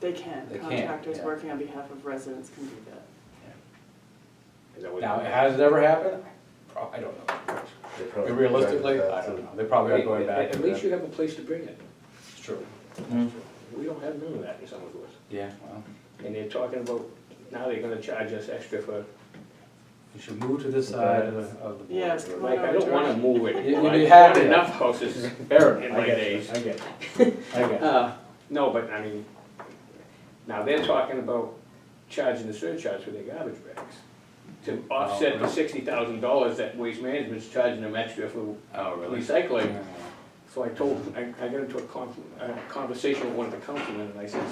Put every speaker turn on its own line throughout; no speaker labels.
They can,
They can,
contractors
yeah.
working on behalf of residents can do that.
Is that what?
Now, has it ever happened? Pro- I don't know.
They
I
probably-
mean, Realistically, I don't know. They probably are going back
At
to
at least
that.
you have a place to bring it.
It's true.
We don't have none of that in Somersville.
Yeah, well,
And they're talking about, now they're gonna charge us extra for,
you should move to this side of the, of the board.
Yes, come on
like,
over.
I don't wanna
George.
move it.
You- you'd be
I've
happy.
had Enough houses buried in
I
my
get you,
days.
I get you. I get you.
Uh, No, but I mean, now they're talking about charging the surcharge for their garbage bags to
Oh,
offset the sixty thousand dollars that Waste Management's charging them extra for
Oh,
recycling. So I told, I, I got into a con, a conversation with one of the councilmen and I said,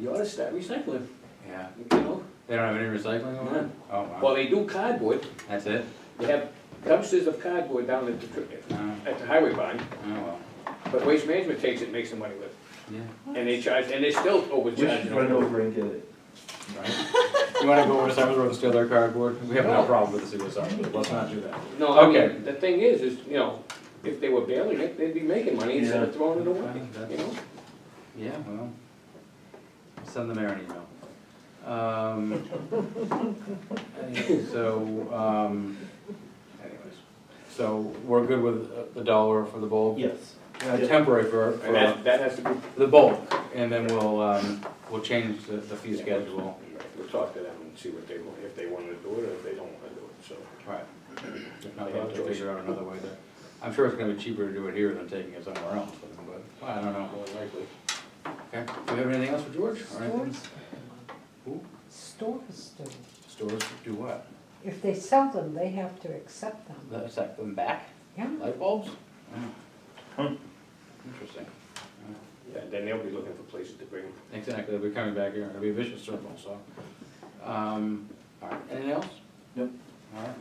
you ought to start recycling,
Yeah.
you know?
They don't have any recycling over there?
None.
Oh, wow.
Well, they do cardboard,
That's it?
they have dumpsters of cardboard down at the,
Oh, oh,
at the highway barn,
well,
but Waste Management takes it, and makes some money with
yeah.
it. And they charge, and they still
We should
overcharging.
run over and get it.
You wanna go over to Simon's Road and steal their cardboard? We have no
No.
problem with the sewer side, let's not do that.
No, I
Okay.
mean, the thing is, is, you know, if they were bailing it, they'd be making money instead of
Yeah.
throwing it away,
Well,
you
that's-
know?
Yeah, well, send the mayor an email. Um, anyway, So, um, anyways, so we're good with uh, the dollar for the bulk?
Yes.
Uh, Temporary for,
And that,
for
that has to be,
the bulk, and then we'll, um, we'll change the, the fee schedule.
we'll talk to them and see what they, want, if they wanna do it or if they don't wanna do it, so.
Right. If not,
They
they'll have
have
to
choice.
figure out another way to, I'm sure it's gonna be cheaper to do it here than taking it somewhere else, but I don't know.
More likely.
Okay, do we have anything else for George? or anything?
Stores,
Who?
stores do.
Stores do what?
If they sell them, they have to accept them.
That's like them back?
Yeah,
Light bulbs?
Hmm.
Interesting.
Yeah, then they'll be looking for places to bring them.
Exactly, we're coming back here, it'll be a vicious circle, so. Um, all right, anything else?
Nope.
All right.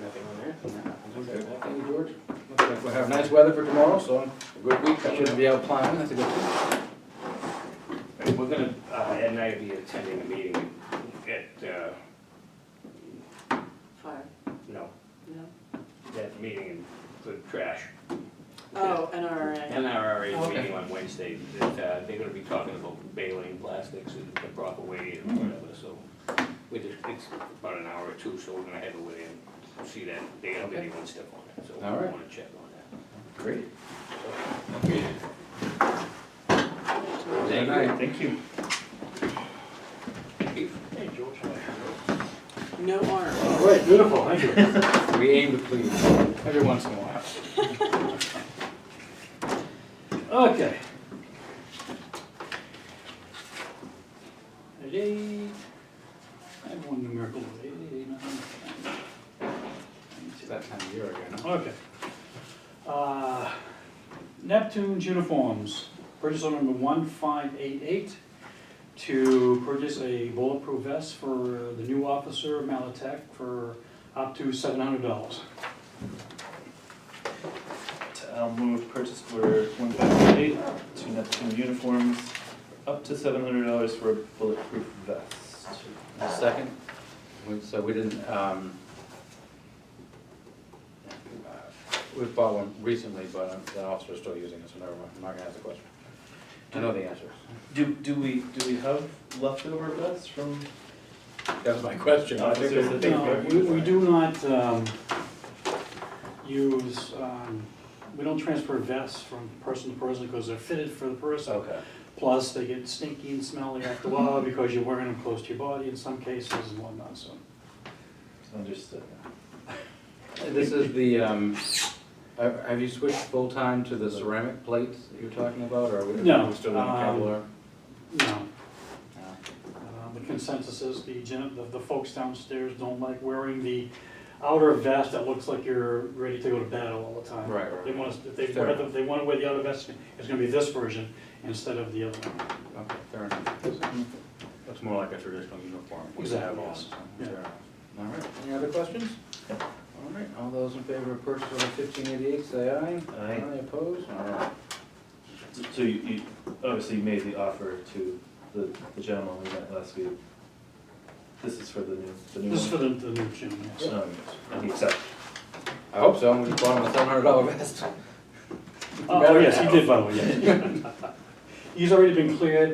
Nothing on there?
Okay, well, Thank you, George. Looks like we'll have nice weather for tomorrow, so
A Good
we
week coming
should
up.
be out plowing, that's a good thing.
And We're gonna, uh, Ed and I will be attending a meeting at, uh,
Fire,
no,
no?
that meeting for trash.
Oh, NRA.
NRRA
Okay.
meeting on Wednesday, that, uh, they're gonna be talking about baling plastics and the proper way and whatever, so. We just, it's about an hour or two, so we're gonna head over there and see that, they have
Okay.
anyone step on it, so we
All right.
wanna check on
Great.
that.
Thank
Thank
you.
Thank you.
Hey, George.
No orange.
All right, beautiful, thank you.
We aim to please every once in a while. Okay. At eight, I have one numerical, at eight, eight, nine, ten. It's that time of year again.
Okay. Uh, Neptune's uniforms, purchase order number one five eight eight to purchase a bulletproof vest for the new officer, Malatech, for up to seven hundred dollars.
I'll move purchase order one five eight to Neptune Uniforms, up to seven hundred dollars for a bulletproof vest.
A Second, We- so we didn't, um, uh, we bought one recently, but um, the officer's still using it, so never mind, I'm not gonna ask the question. I know the answer.
Do, do we, do we have leftover vests from?
That was my question.
I think there's a Thank you.
No, We, we do not, um, use, um, we don't transfer vests from person to person because they're fitted for the person.
Okay.
Plus, they get stinky and smelly after a while because you're wearing them close to your body in some cases and whatnot, so.
Understood.
This is the, um, have have you switched full-time to the ceramic plates that you're talking about, or are we
No,
we still on
um,
Kevlar?
No,
No.
uh, the consensus is the gen, the, the folks downstairs don't like wearing the outer vest that looks like you're ready to go to battle all the time.
Right, right,
They
right.
want, us- if they
Fair
wear, the- if they wanna wear the outer vest, it's gonna be this version instead of the other one.
Okay, fair enough. That's more like a traditional uniform. we
Exactly,
have on,
yes.
so,
Yeah.
fair enough. All right, any other questions? All right, all those in favor of purchase order fifteen eighty-eight, say aye.
Aye.
Aye opposed? All right.
So- So you, you obviously made the offer to the, the gentleman we met last week. This is for the new, the new one.
This is for the, the new gym, yes.
Um, and he accepted.
I hope so, we just bought him a seven hundred dollar vest. Oh,
Oh, yes, he did, by the way, yes. He's already been cleared,